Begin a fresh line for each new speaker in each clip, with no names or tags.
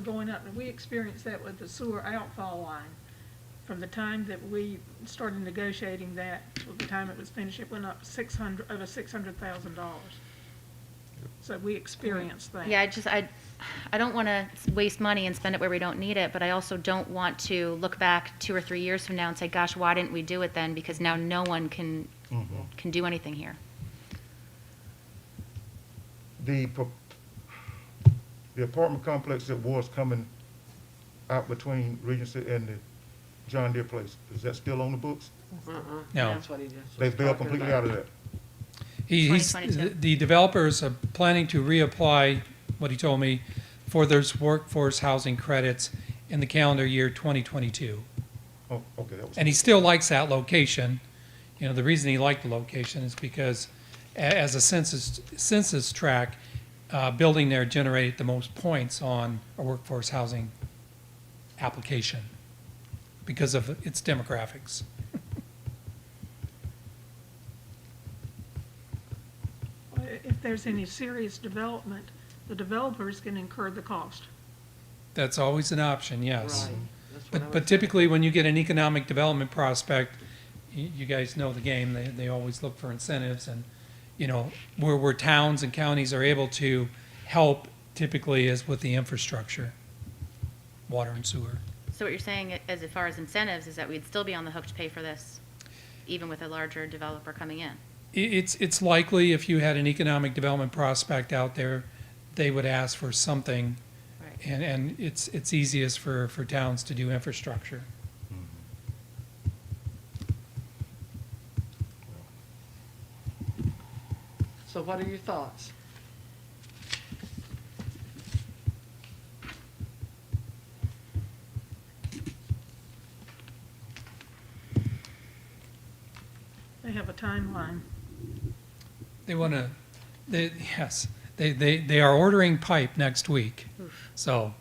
going up, and we experienced that with the sewer outfall line. From the time that we started negotiating that, till the time it was finished, it went up six hundred, over six hundred thousand dollars. So we experienced that.
Yeah, I just, I, I don't want to waste money and spend it where we don't need it, but I also don't want to look back two or three years from now and say, gosh, why didn't we do it then? Because now no one can, can do anything here.
The, pro- the apartment complex that was coming out between Regency and the John Deere place, is that still on the books?
No.
That's what he just.
They
was
bailed
talking
completely
about.
out of that.
He- He's,
2022.
the developers are planning to reapply, what he told me, for those workforce housing credits in the calendar year 2022.
Oh, okay, that was,
And he still likes that location. You know, the reason he liked the location is because a- as a census, census tract, uh, building there generated the most points on a workforce housing application because of its demographics.
If there's any serious development, the developers can incur the cost.
That's always an option, yes.
Right. That's what I
But,
was
but
saying.
typically, when you get an economic development prospect, you, you guys know the game, they, they always look for incentives and, you know, where, where towns and counties are able to help typically is with the infrastructure, water and sewer.
So what you're saying, i- as far as incentives, is that we'd still be on the hook to pay for this, even with a larger developer coming in?
I it's, it's likely if you had an economic development prospect out there, they would ask for something.
Right.
And, and it's, it's easiest for, for towns to do infrastructure.
So what are your thoughts?
They have a timeline.
They want to, they, yes, they, they, they are ordering pipe next week. So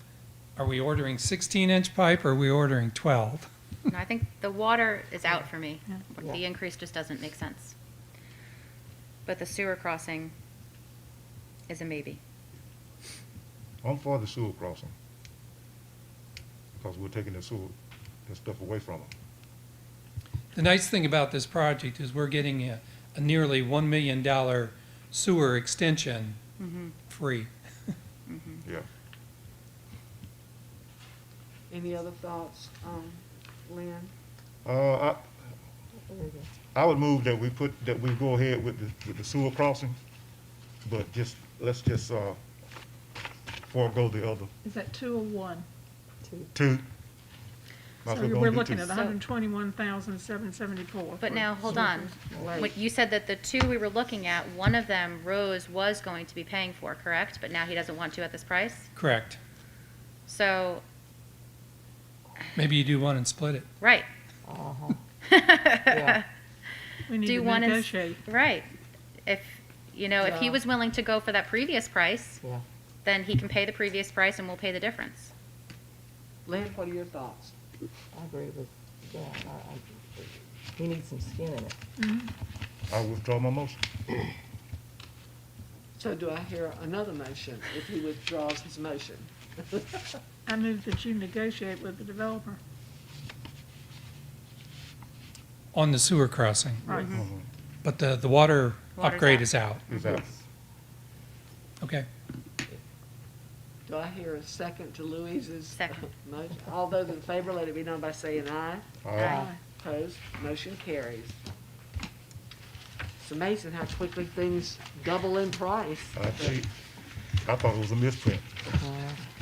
are we ordering 16 inch pipe or are we ordering 12?
No, I think the water is out for me.
Yeah.
The increase just doesn't make sense. But the sewer crossing is a maybe.
I'm for the sewer crossing. Because we're taking the sewer, that stuff away from them.
The nice thing about this project is we're getting a, a nearly $1 million sewer extension
Mm-hmm.
free.
Yeah.
Any other thoughts, um, Lynn?
Uh, I, I would move that we put, that we go ahead with the, with the sewer crossing, but just, let's just, uh, forego the other
Is that two or one?
two. Might as
So
well go
we're
and do
looking
two.
at hundred and twenty-one thousand, seven seventy-four.
But now, hold on. What, you said that the two we were looking at, one of them Rose was going to be paying for, correct? But now he doesn't want to at this price?
Correct.
So,
Maybe you do one and split it.
right,
We need
do
to
one and, s-
negotiate.
right. If, you know, if he
Yeah.
was willing to go for that previous price,
Yeah.
then he can pay the previous price and we'll pay the difference.
Lynn, what are your thoughts?
I agree with Dan. I, I, he needs some skin in it.
I withdraw my motion.
So do I hear another motion if he withdraws his motion?
I move that you negotiate with the developer.
On the sewer crossing,
Right.
but the, the water
Water's
upgrade
out.
is out.
Is out.
Okay.
Do I hear a second to Louise's? uh,
Second.
motion? All those in favor, let it be known by saying aye.
All right.
Opposed, motion carries. It's amazing how quickly things double in price.
I cheat. I thought it was a misprint.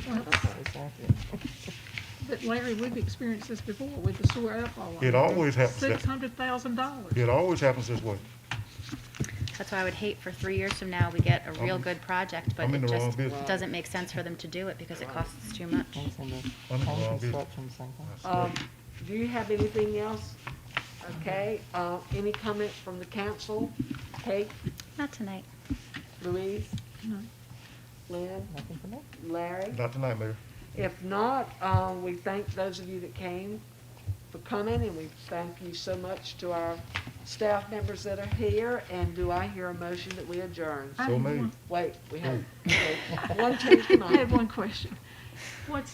Exactly.
But Larry, we've experienced this before with the sewer outfall.
It always happens that-
Six hundred thousand dollars.
It always happens this way.
That's why I would hate for three years from now, we get a real
I'm-
good project, but
I'm in
it
the wrong
just
business.
doesn't make sense for them to do it because it costs too much.
Things in the
I'm in the wrong business.
construction something.
Um, do you have anything else? Okay, uh, any comment from the council? Kate,
Not tonight.
Louise?
No.
Lynn,
Nothing for me.
Larry?
Not tonight, Mayor.
If not, um, we thank those of you that came for coming, and we thank you so much to our staff members that are here, and do I hear a motion that we adjourn?
I
So
have
made.
one-
Wait, we have, okay, one change tonight.
I have one question. What's